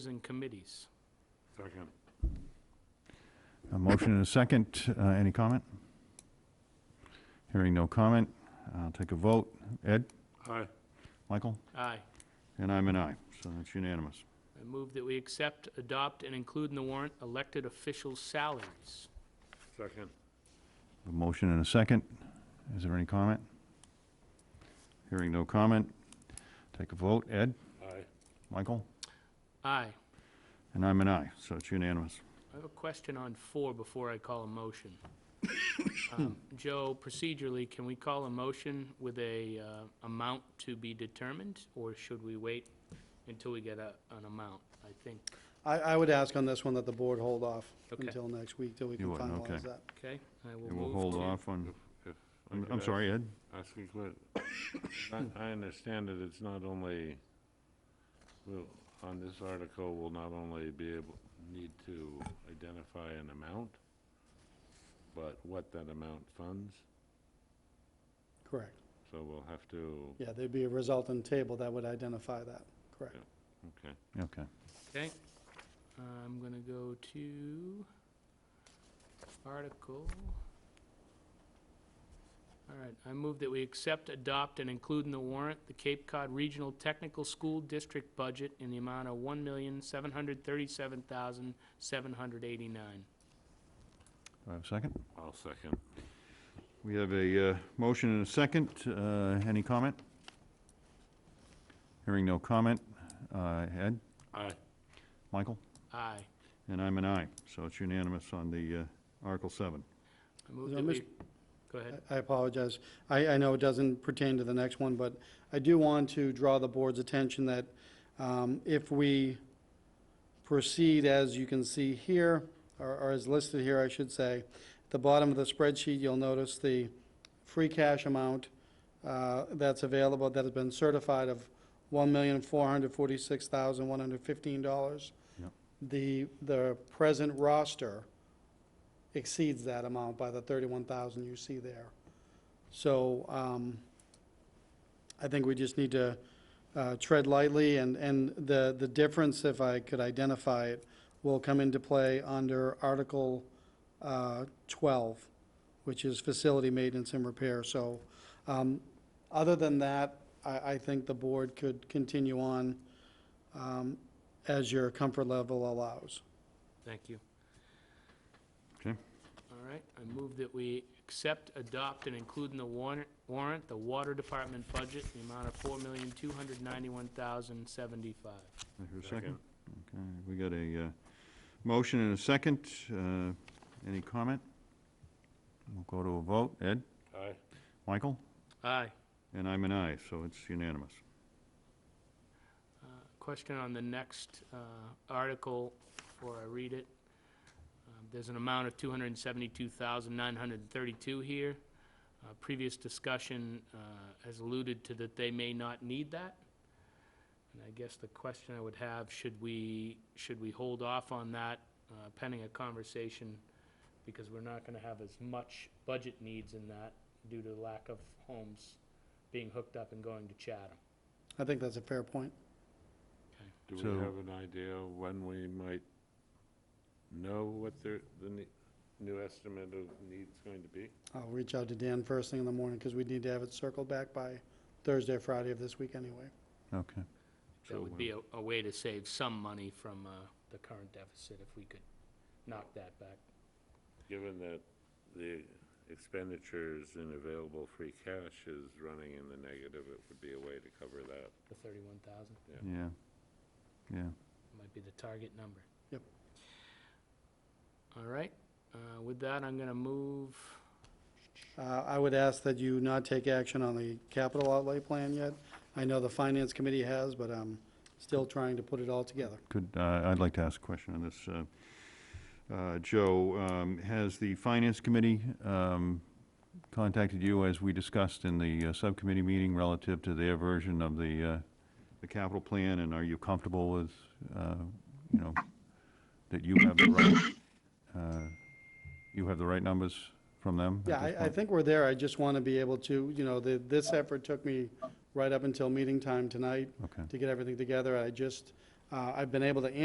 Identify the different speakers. Speaker 1: and committees.
Speaker 2: Second.
Speaker 3: A motion and a second. Uh, Any comment? Hearing no comment, I'll take a vote. Ed?
Speaker 2: Aye.
Speaker 3: Michael?
Speaker 1: Aye.
Speaker 3: And I'm an aye, so that's unanimous.
Speaker 1: I move that we accept, adopt, and include in the warrant elected officials' salaries.
Speaker 2: Second.
Speaker 3: A motion and a second. Is there any comment? Hearing no comment, take a vote. Ed?
Speaker 2: Aye.
Speaker 3: Michael?
Speaker 1: Aye.
Speaker 3: And I'm an aye, so it's unanimous.
Speaker 1: I have a question on four before I call a motion. Um, Joe, procedurally, can we call a motion with a uh, amount to be determined, or should we wait until we get a- an amount? I think,
Speaker 4: I, I would ask on this one that the board hold off
Speaker 1: Okay.
Speaker 4: until next week, till we can
Speaker 3: You would, okay.
Speaker 4: finalize that.
Speaker 1: okay, I will
Speaker 3: And we'll
Speaker 1: move
Speaker 3: hold
Speaker 1: to-
Speaker 3: off on,
Speaker 2: If I
Speaker 3: I'm-
Speaker 2: could
Speaker 3: I'm
Speaker 2: ask-
Speaker 3: sorry, Ed?
Speaker 2: Ask a question. I, I understand that it's not only, we'll, on this article, we'll not only be able, need to identify an amount, but what that amount funds,
Speaker 4: Correct.
Speaker 2: so we'll have to,
Speaker 4: Yeah, there'd be a resultant table that would identify that, correct.
Speaker 2: okay.
Speaker 3: Okay.
Speaker 1: Okay, I'm going to go to article. All right, I move that we accept, adopt, and include in the warrant the Cape Cod Regional Technical School District budget in the amount of one million, seven hundred thirty-seven thousand, seven hundred eighty-nine.
Speaker 3: Do I have a second?
Speaker 2: I'll second.
Speaker 3: We have a uh, motion and a second. Uh, Any comment? Hearing no comment. Uh, Ed?
Speaker 2: Aye.
Speaker 3: Michael?
Speaker 1: Aye.
Speaker 3: And I'm an aye, so it's unanimous on the uh, Article
Speaker 1: I
Speaker 3: 7.
Speaker 1: move
Speaker 4: Now,
Speaker 1: that we,
Speaker 4: Mr.
Speaker 1: go ahead.
Speaker 4: I I apologize. I, I know it doesn't pertain to the next one, but I do want to draw the board's attention that um, if we proceed, as you can see here, or or as listed here, I should say, at the bottom of the spreadsheet, you'll notice the free cash amount uh, that's available, that has been certified of $1,446,115.
Speaker 3: Yep.
Speaker 4: The, the present roster exceeds that amount by the 31,000 you see there. So um, I think we just need to uh, tread lightly, and, and the, the difference, if I could identify it, will come into play under Article uh, 12, which is facility maintenance and repair. So um, other than that, I, I think the board could continue on um, as your comfort level allows.
Speaker 1: Thank you.
Speaker 3: Okay.
Speaker 1: All right, I move that we accept, adopt, and include in the warrant, warrant, the Water Department budget, in the amount of four million, two hundred ninety-one thousand, seventy-five.
Speaker 3: I hear a second. Okay, we got a uh, motion and a second. Uh, Any comment? We'll go to a vote. Ed?
Speaker 2: Aye.
Speaker 3: Michael?
Speaker 1: Aye.
Speaker 3: And I'm an aye, so it's unanimous.
Speaker 1: Uh, Question on the next uh, article, before I read it. Um, There's an amount of 272,932 here. Uh, Previous discussion uh, has alluded to that they may not need that. And I guess the question I would have, should we, should we hold off on that uh, pending a conversation? Because we're not going to have as much budget needs in that due to the lack of homes being hooked up and going to Chatham.
Speaker 4: I think that's a fair point.
Speaker 2: Do
Speaker 3: So-
Speaker 2: we have an idea when we might know what the, the ne- new estimate of need's going to be?
Speaker 4: I'll reach out to Dan first thing in the morning, because we need to have it circled back by Thursday, or Friday of this week anyway.
Speaker 3: Okay.
Speaker 2: So
Speaker 1: That would
Speaker 2: when-
Speaker 1: be a, a way to save some money from, uh, the current deficit if we could knock that back.
Speaker 2: Given that the expenditures in available free cash is running in the negative, it would be a way to cover that.
Speaker 1: The thirty-one thousand
Speaker 3: Yeah. Yeah.
Speaker 1: might be the target number.
Speaker 4: Yep.
Speaker 1: All right, uh, with that, I'm gonna move,
Speaker 4: Uh, I would ask that you not take action on the capital outlay plan yet. I know the finance committee has, but I'm still trying to put it all together.
Speaker 3: Could, uh, I'd like to ask a question on this. uh, uh, Joe, um, has the Finance Committee um, contacted you as we discussed in the uh, subcommittee meeting relative to their version of the, uh, the capital plan? And are you comfortable with, uh, you know, that you have the right, uh, you have the right numbers from them? at
Speaker 4: Yeah,
Speaker 3: this
Speaker 4: I, I
Speaker 3: point?
Speaker 4: think we're there. I just want to be able to, you know, the, this effort took me right up until meeting time tonight
Speaker 3: Okay.
Speaker 4: to get everything together. I just, uh, I've been able to